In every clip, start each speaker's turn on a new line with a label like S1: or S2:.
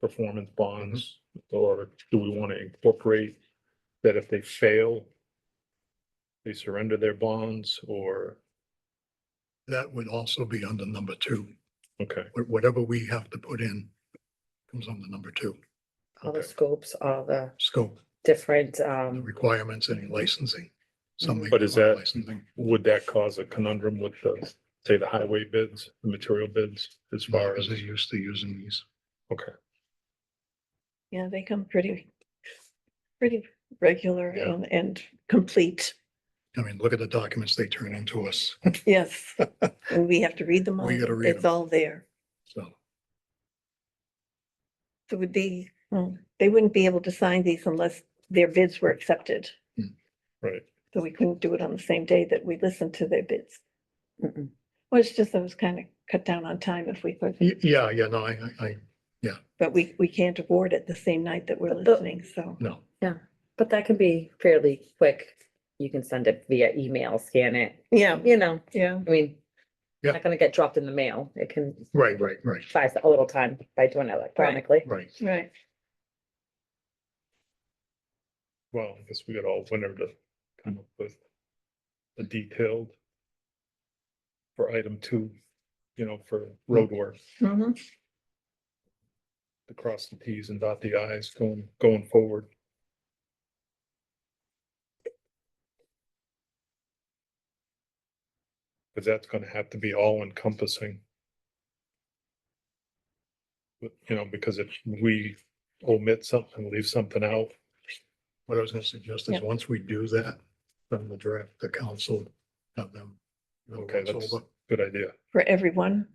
S1: performance bonds? Or do we want to incorporate that if they fail, they surrender their bonds or,
S2: That would also be under number two.
S1: okay,
S2: Wh- Whatever we have to put in comes under number two,
S3: all the
S1: Okay.
S3: scopes, all the
S2: scope,
S3: different,
S2: the
S3: um,
S2: requirements, any licensing. Some
S1: But is
S2: require
S1: that-
S2: licensing.
S1: would that cause a conundrum with the, say, the highway bids, the material bids as far
S2: Because
S1: as?
S2: they're used to using these.
S1: Okay,
S4: Yeah, they come pretty, pretty regular
S1: Yeah.
S4: and, and complete.
S2: I mean, look at the documents they turn into us,
S4: Yes, and we have to read them all.
S2: We gotta read
S4: It's
S2: 'em.
S4: all there.
S2: so.
S4: So would be,
S2: Hmm.
S4: well, they wouldn't be able to sign these unless their bids were accepted.
S2: Hmm.
S1: right.
S4: So we couldn't do it on the same day that we listened to their bids.
S3: mm-mm.
S4: Well, it's just that it was kind of cut down on time if we could,
S2: Y- Yeah, yeah, no, I, I- I,
S4: but we, we can't award it the same night that we're
S3: But the-
S4: listening, so.
S2: no,
S3: but that can be fairly quick. You can send it via email, scan it,
S4: Yeah,
S3: you know,
S4: yeah.
S3: I mean,
S2: Yeah.
S3: not gonna get dropped in the mail. It can
S2: right, right, right,
S3: buy us a little time by doing it electronically.
S2: right.
S4: Right.
S1: Well, I guess we got all winter to come up with a detailed for item two, you know, for roadwork,
S4: Mhm.
S1: to cross the Ts and dot the Is going, going forward. Cause that's gonna have to be all encompassing. But, you know, because if we omit something, leave something out,
S2: What I was gonna suggest is,
S4: Yeah.
S2: once we do that, then the draft, the council, have them. go
S1: Okay,
S2: once
S1: that's-
S2: over.
S1: good idea.
S4: For everyone,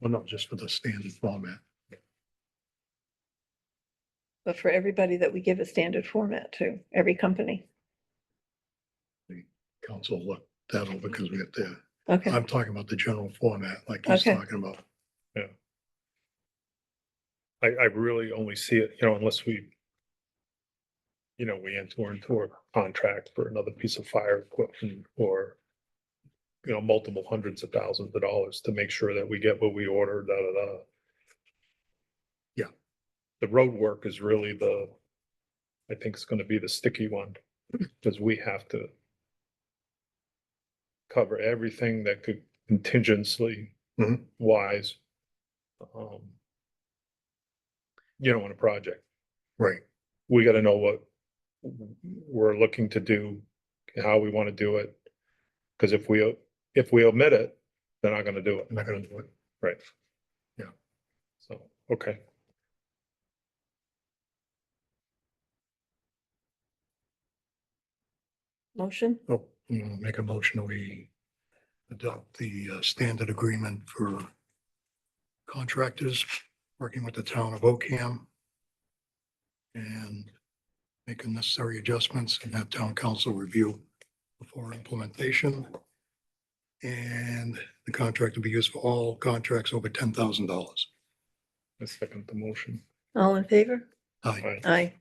S2: Well, not just for the standard format,
S4: but for everybody that we give a standard format to, every company.
S2: council look that over, because we have to
S4: Okay.
S2: I'm talking about the general format, like he's
S4: Okay.
S2: talking about.
S1: I, I really only see it, you know, unless we, you know, we enter into a contract for another piece of fire equipment or, you know, multiple hundreds of thousands of dollars to make sure that we get what we order, da, da, da.
S2: Yeah.
S1: The road work is really the, I think it's gonna be the sticky one, because we have to cover everything that could contingency
S2: Mhm.
S1: wise. Um, you know, on a project.
S2: Right,
S1: We gotta know what we're looking to do, how we wanna do it. Cause if we, if we omit it, they're not gonna do it,
S2: I'm not gonna do it.
S1: so, okay.
S4: Motion?
S2: Oh, you know, make a motion, we adopt the uh, standard agreement for contractors working with the town of Ocam. And make the necessary adjustments and have town council review before implementation. And the contract will be used for all contracts over ten thousand dollars.
S1: I second the motion.
S4: All in favor?
S2: Aye,
S1: Aye.
S4: Aye.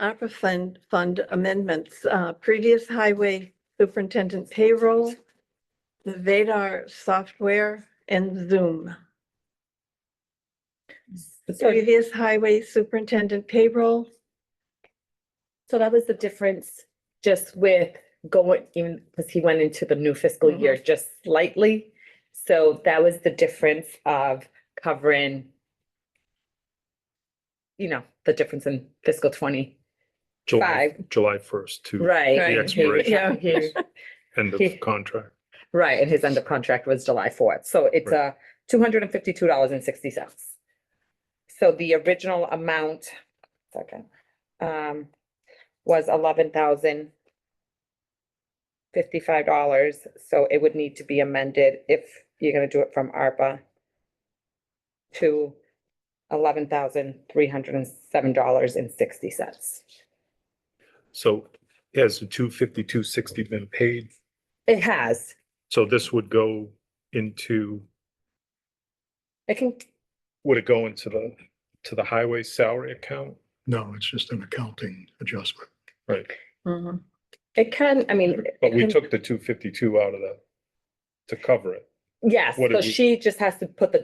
S4: ARPA fund, fund amendments, uh, previous highway superintendent payroll, the Vadar software and Zoom. The
S5: So-
S4: previous highway superintendent payroll,
S5: So that was the difference just with going, even because he went into the new fiscal year just slightly. So that was the difference of covering, you know, the difference in fiscal twenty,
S1: July,
S5: Five.
S1: July first to
S5: right?
S4: Right.
S5: and he-
S1: expiration.
S5: he-
S1: end
S5: Yeah.
S1: of contract.
S5: Right, and his end of contract was July fourth, so it's uh two hundred and fifty-two dollars and sixty cents. So the original amount, second, um, was eleven thousand fifty-five dollars, so it would need to be amended if you're gonna do it from ARPA to eleven thousand three hundred and seven dollars and sixty cents.
S1: So has the two fifty-two sixty been paid?
S5: It has,
S1: So this would go into,
S5: it can,
S1: would it go into the, to the highway salary account?
S2: no, it's just an accounting adjustment.
S1: Right,
S4: Mhm.
S5: it can, I mean. it
S1: but we
S5: can-
S1: took the two fifty-two out of the, to cover it.
S5: Yes,
S1: what
S5: so
S1: did we-
S5: she just has to put the